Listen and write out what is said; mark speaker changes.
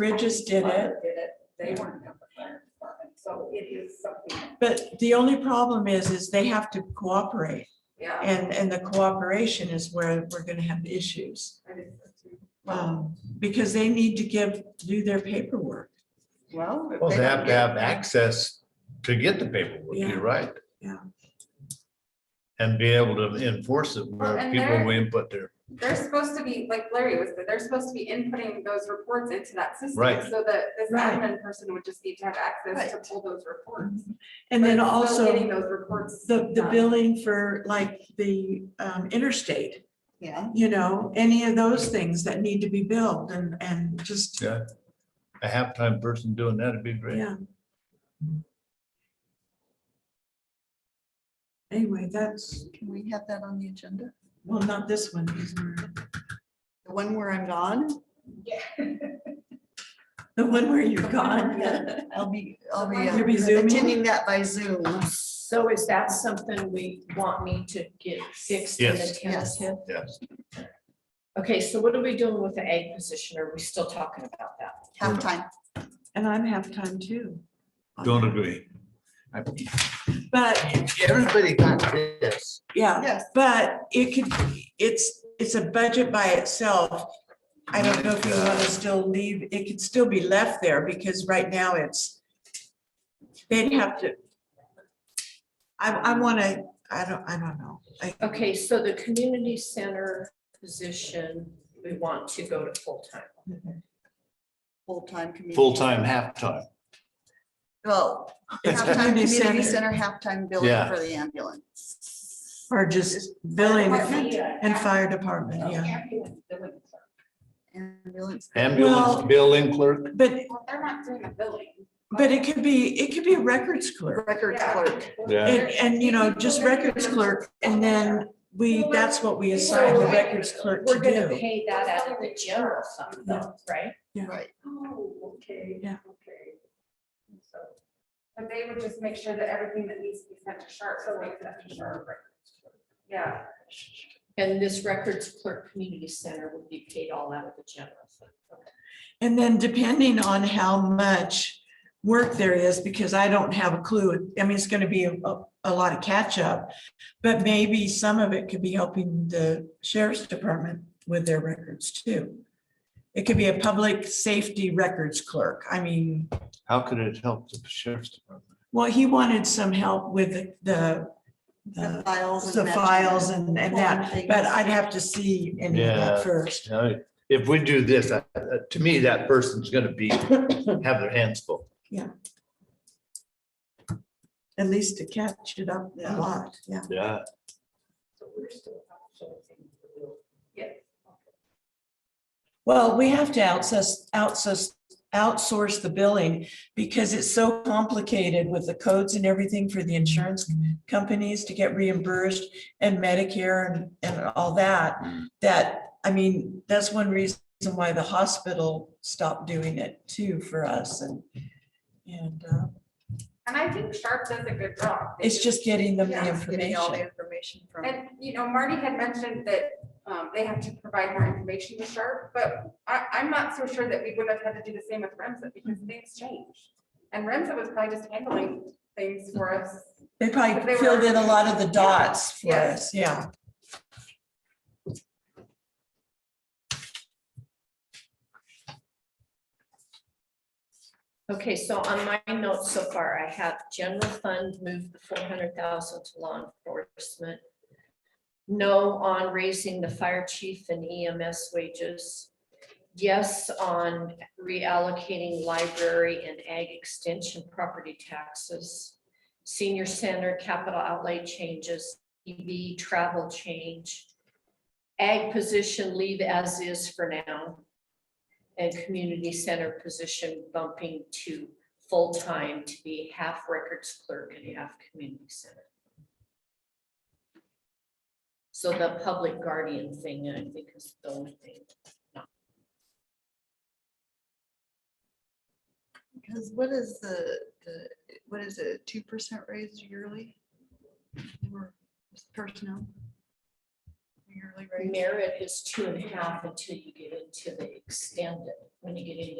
Speaker 1: Bridges did it,
Speaker 2: Did it, they weren't of the fire department, so it is something,
Speaker 1: but the only problem is, is they have to cooperate.
Speaker 2: yeah.
Speaker 1: And, and the cooperation is where we're gonna have issues.
Speaker 2: I did that too.
Speaker 1: um, Because they need to give, do their paperwork.
Speaker 2: Well. if
Speaker 3: Well, they
Speaker 2: don't
Speaker 3: have to
Speaker 2: get-
Speaker 3: have access to get the paperwork,
Speaker 1: Yeah.
Speaker 3: you're right.
Speaker 1: Yeah.
Speaker 3: And be able to enforce it
Speaker 2: Well,
Speaker 3: where
Speaker 2: and
Speaker 3: people
Speaker 2: they're-
Speaker 3: will input their,
Speaker 2: They're supposed to be, like Larry was, they're supposed to be inputting those reports into that system.
Speaker 3: Right.
Speaker 2: So that this
Speaker 1: Right.
Speaker 2: admin person would just need to have access to pull those reports.
Speaker 1: And then
Speaker 2: But it's still
Speaker 1: also
Speaker 2: Getting those reports. um,
Speaker 1: the, the
Speaker 2: done.
Speaker 1: billing for like the um, interstate,
Speaker 4: Yeah.
Speaker 1: you know, any of those things that need to be billed and, and just,
Speaker 3: yeah. A half-time person doing that would be great.
Speaker 1: yeah. Anyway, that's,
Speaker 4: Can we have that on the agenda?
Speaker 1: well, not this one. these were-
Speaker 4: The one where I'm gone?
Speaker 1: The one where you're gone.
Speaker 4: I'll be, I'll be
Speaker 1: You'll be
Speaker 4: uh,
Speaker 1: zooming?
Speaker 4: attending that by Zoom.
Speaker 5: So is that something we want me to get fixed in the
Speaker 3: Yes.
Speaker 4: Yes.
Speaker 5: tentative?
Speaker 3: Yes.
Speaker 5: Okay, so what are we doing with the egg position? Are we still talking about that?
Speaker 4: Halftime.
Speaker 1: And I'm half-time too.
Speaker 3: Don't agree.
Speaker 1: But,
Speaker 3: Everybody got this.
Speaker 1: yeah,
Speaker 4: Yes.
Speaker 1: but it could, it's, it's a budget by itself. I don't know if you want to still leave, it could still be left there because right now it's, they'd have to. I, I want to, I don't, I don't know. I-
Speaker 5: Okay, so the community center position, we want to go to full-time.
Speaker 4: Full-time community.
Speaker 3: Full-time, half-time.
Speaker 4: Well, halftime
Speaker 1: Community center.
Speaker 4: community center, halftime billing
Speaker 3: Yeah.
Speaker 4: for the ambulance.
Speaker 1: Or just billing
Speaker 4: Department?
Speaker 1: and fire department, yeah.
Speaker 4: Ambulance.
Speaker 3: Ambulance
Speaker 1: Well-
Speaker 3: billing clerk,
Speaker 1: But,
Speaker 2: Well, they're not doing the billing.
Speaker 1: but it could be, it could be records clerk.
Speaker 4: Record
Speaker 2: Yeah.
Speaker 4: clerk.
Speaker 3: Yeah.
Speaker 1: And, and you know, just records clerk and then we, that's what we assign the records clerk to
Speaker 5: We're gonna
Speaker 1: do.
Speaker 5: pay that out of the general fund though, right?
Speaker 4: Right.
Speaker 2: Oh, okay.
Speaker 1: Yeah.
Speaker 2: Okay. So, But they would just make sure that everything that needs to be sent to Sharp, so like that to Sharp. Yeah.
Speaker 5: And this records clerk community center would be paid all out of the general fund.
Speaker 1: And then depending on how much work there is, because I don't have a clue, I mean, it's gonna be a, a lot of catch up. But maybe some of it could be helping the sheriff's department with their records too. It could be a public safety records clerk. I mean,
Speaker 3: how could it help the sheriff's department?
Speaker 1: well, he wanted some help with the,
Speaker 4: The
Speaker 1: the,
Speaker 4: files.
Speaker 1: Uh, the
Speaker 4: and matching
Speaker 1: files and, and that,
Speaker 4: Pulling
Speaker 1: but
Speaker 4: things.
Speaker 1: I'd have to see any of
Speaker 3: Yeah.
Speaker 1: that first.
Speaker 3: You know, If we do this, I- I- to me, that person's gonna be, have their hands full.
Speaker 1: At least to catch it up a
Speaker 4: Yeah.
Speaker 1: lot, yeah.
Speaker 3: Yeah.
Speaker 5: So we're still outsourcing.
Speaker 2: Yes.
Speaker 1: Well, we have to outsource, outsource, outsource the billing because it's so complicated with the codes and everything for the insurance companies to get reimbursed and Medicare and, and all that, that, I mean, that's one reason why the hospital stopped doing it too for us and, and uh,
Speaker 2: And I think Sharp does a good job. They
Speaker 1: it's just getting them the
Speaker 2: Yeah,
Speaker 4: Getting all the
Speaker 1: information.
Speaker 4: information from.
Speaker 2: And, you know, Marty had mentioned that um, they have to provide more information to Sharp, but I, I'm not so sure that we would have had to do the same with Remsa because
Speaker 1: Mm-hmm.
Speaker 2: things change. And Remsa was probably just handling things for us.
Speaker 1: They
Speaker 2: But they
Speaker 1: probably
Speaker 2: were-
Speaker 1: filled in a lot of the dots for
Speaker 2: Yeah.
Speaker 1: us, yeah.
Speaker 5: Okay, so on my notes so far, I have general fund move the four hundred thousand to law enforcement. No on raising the fire chief and EMS wages. Yes on reallocating library and ag extension property taxes. Senior center capital outlay changes, EV travel change. Ag position leave as is for now and community center position bumping to full-time to be half records clerk and half community center. So the public guardian thing, I think is the only thing.
Speaker 4: Because what is the, the, what is it, two percent raise yearly? Or Personnel? Yearly raise?
Speaker 5: Merit is two and a half until you get into the extended, when you get into